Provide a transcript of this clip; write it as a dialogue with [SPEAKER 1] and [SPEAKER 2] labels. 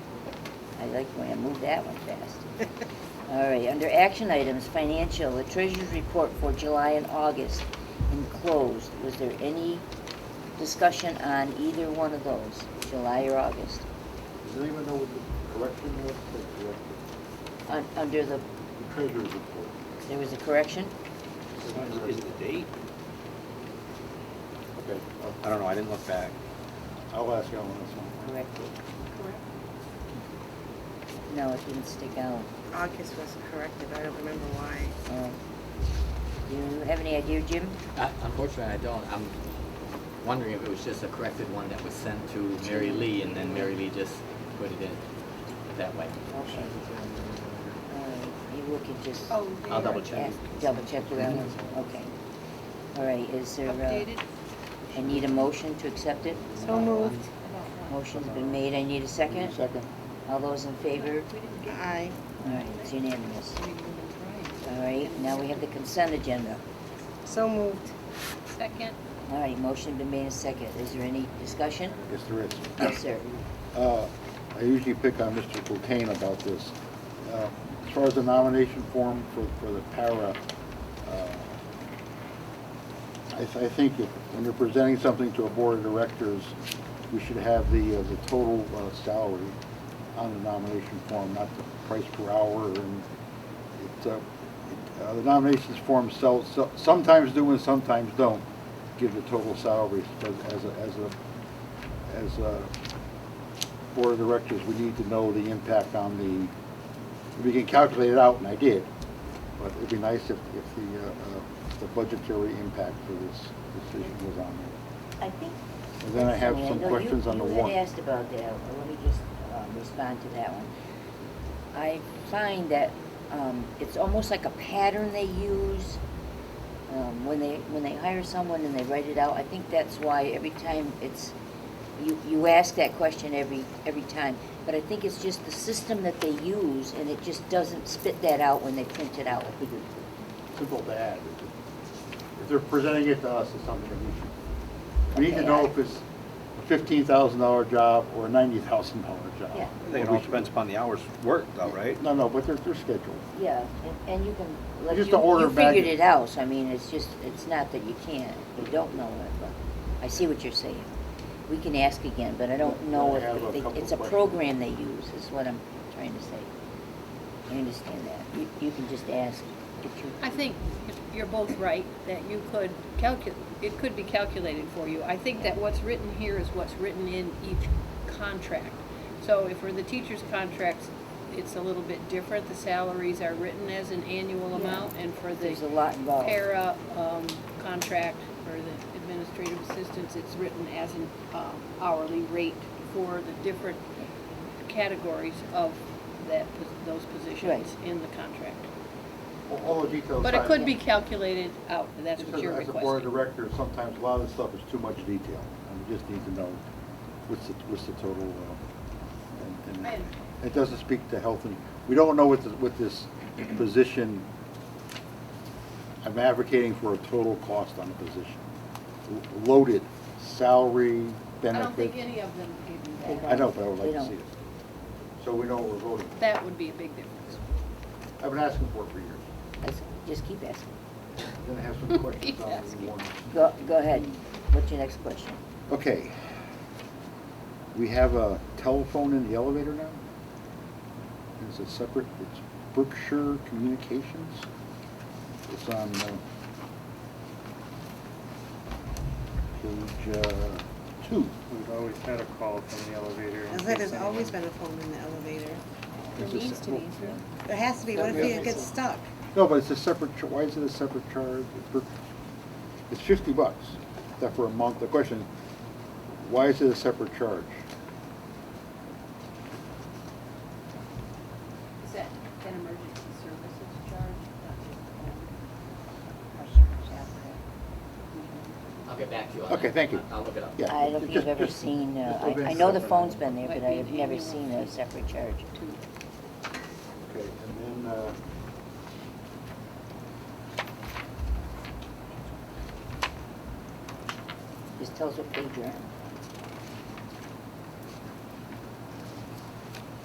[SPEAKER 1] I like when I move that one fast. All right, under action items, financial, the treasurer's report for July and August enclosed. Was there any discussion on either one of those, July or August?
[SPEAKER 2] Does anyone know what the correction was? The correction-
[SPEAKER 1] Un- Under the,
[SPEAKER 2] The treasurer's report.
[SPEAKER 1] there was a correction?
[SPEAKER 3] Is it the date?
[SPEAKER 2] Okay,
[SPEAKER 3] I don't know, I didn't look back.
[SPEAKER 2] I'll- I'll ask Alan this one.
[SPEAKER 1] Corrected. No, it didn't stick out.
[SPEAKER 4] August was corrected, I don't remember why.
[SPEAKER 1] Uh, Do you have any idea, Jim?
[SPEAKER 5] Uh, Unfortunately, I don't. I'm wondering if it was just a corrected one that was sent to Mary Lee, and then Mary Lee just put it in that way.
[SPEAKER 1] Okay. All right, Maybe we could just
[SPEAKER 6] Oh,
[SPEAKER 5] I'll
[SPEAKER 6] there.
[SPEAKER 5] double check.
[SPEAKER 1] ask- double check around, okay. All right, is there,
[SPEAKER 6] Updated.
[SPEAKER 1] uh, I need a motion to accept it?
[SPEAKER 6] So moved.
[SPEAKER 1] Motion's been made, I need a second.
[SPEAKER 2] Second.
[SPEAKER 1] All those in favor?
[SPEAKER 4] I,
[SPEAKER 1] All right, it's unanimous. All right, now we have the consent agenda.
[SPEAKER 4] so moved.
[SPEAKER 6] Second.
[SPEAKER 1] All right, motion been made and second. Is there any discussion?
[SPEAKER 2] Yes, there is.
[SPEAKER 1] Yes, sir.
[SPEAKER 2] Uh, I usually pick on Mr. Cocaine about this. Uh, As far as the nomination form for, for the para, uh, I, th- I think if, when you're presenting something to a board of directors, we should have the, uh, the total uh, salary on the nomination form, not the price per hour and it, uh, it, uh, the nominations form sells, so- sometimes do and sometimes don't give the total salaries as, as a, as a, as a board of directors, we need to know the impact on the, we can calculate it out, and I did, but it'd be nice if, if the, uh, uh, the budgetary impact for this decision was on there.
[SPEAKER 1] I think.
[SPEAKER 2] And then I have some
[SPEAKER 1] know you-
[SPEAKER 2] questions on the
[SPEAKER 1] You
[SPEAKER 2] warrant.
[SPEAKER 1] had asked about that, Well, let me just uh, respond to that one. I find that um, it's almost like a pattern they use um, when they, when they hire someone and they write it out. I think that's why every time it's, you, you ask that question every, every time. But I think it's just the system that they use, and it just doesn't spit that out when they print it out.
[SPEAKER 2] Simple to add. If they're presenting it to us, it's something that we should, we need to know if it's a fifteen thousand dollar job or a ninety thousand dollar job.
[SPEAKER 1] Yeah.
[SPEAKER 3] I think it all depends upon the hours worked though, right?
[SPEAKER 2] No, no, but they're, they're scheduled.
[SPEAKER 1] Yeah, and- and you can, like, you
[SPEAKER 2] Just to order
[SPEAKER 1] you
[SPEAKER 2] back-
[SPEAKER 1] figured it out, so I mean, it's just, it's not that you can't, you don't know it, but I see what you're saying. We can ask again, but I don't know
[SPEAKER 2] I
[SPEAKER 1] if,
[SPEAKER 2] have a
[SPEAKER 1] they-
[SPEAKER 2] couple
[SPEAKER 1] it's a
[SPEAKER 2] questions.
[SPEAKER 1] program they use, is what I'm trying to say. I understand that. You, you can just ask if you.
[SPEAKER 6] I think you're both right, that you could calculate, it could be calculated for you. I think that what's written here is what's written in each contract. So if for the teacher's contracts, it's a little bit different, the salaries are written as an annual amount, and for the
[SPEAKER 1] There's a lot involved.
[SPEAKER 6] para, um, contract for the administrative assistants, it's written as an um, hourly rate for the different categories of that, those positions
[SPEAKER 1] Right.
[SPEAKER 6] in the contract.
[SPEAKER 2] All- All the details.
[SPEAKER 6] But it
[SPEAKER 2] aside,
[SPEAKER 6] could be calculated out, that's what
[SPEAKER 2] Because
[SPEAKER 6] you're
[SPEAKER 2] As a board
[SPEAKER 6] requesting.
[SPEAKER 2] director, sometimes a lot of this stuff is too much detail, and we just need to know what's the, what's the total, uh, and,
[SPEAKER 6] I
[SPEAKER 2] and
[SPEAKER 6] understand.
[SPEAKER 2] it doesn't speak to health, and, we don't know what, the- what this position, I'm advocating for a total cost on the position. L- Loaded, salary,
[SPEAKER 6] I don't think
[SPEAKER 2] benefit,
[SPEAKER 6] any of them give you
[SPEAKER 2] I know, but I would
[SPEAKER 1] They
[SPEAKER 2] like to
[SPEAKER 1] don't.
[SPEAKER 2] see it. So we know what we're voting
[SPEAKER 6] that. That would be a big difference.
[SPEAKER 2] for. I've been asking for it for years,
[SPEAKER 1] Let's- Just keep asking.
[SPEAKER 2] then I have some questions
[SPEAKER 6] Keep
[SPEAKER 2] on the
[SPEAKER 6] asking.
[SPEAKER 2] warrant.
[SPEAKER 1] Go, go ahead. What's your next question?
[SPEAKER 2] Okay. We have a telephone in the elevator now? It's a separate, it's Berkshire Communications. It's on uh, page uh, two.
[SPEAKER 7] We've always had a call from the elevator. in
[SPEAKER 4] There
[SPEAKER 7] case
[SPEAKER 4] has always
[SPEAKER 7] anyone-
[SPEAKER 4] been a phone in the elevator.
[SPEAKER 2] It's a
[SPEAKER 6] needs to
[SPEAKER 2] se-
[SPEAKER 6] be.
[SPEAKER 4] There has to be, what if
[SPEAKER 2] Yeah.
[SPEAKER 4] you get stuck?
[SPEAKER 2] No, but it's a separate, cha- why is it a separate charge? It's Berk- It's fifty bucks, that for a month. The question, is, why is it a separate charge?
[SPEAKER 6] Is that an emergency services charge?
[SPEAKER 5] I'll get back to you on that.
[SPEAKER 2] Okay, thank you.
[SPEAKER 5] I- I'll look it up.
[SPEAKER 2] Yeah,
[SPEAKER 1] I don't think
[SPEAKER 2] just-
[SPEAKER 1] I've ever
[SPEAKER 2] just-
[SPEAKER 1] seen, uh,
[SPEAKER 2] just open
[SPEAKER 1] I, I
[SPEAKER 2] it
[SPEAKER 1] know the
[SPEAKER 2] separate.
[SPEAKER 1] phone's been there, but
[SPEAKER 6] Might be
[SPEAKER 1] I have
[SPEAKER 6] an
[SPEAKER 1] never
[SPEAKER 6] annual
[SPEAKER 1] seen a
[SPEAKER 6] fee.
[SPEAKER 1] separate charge.
[SPEAKER 2] Okay, and then, uh,
[SPEAKER 1] Just tell us what page you're on.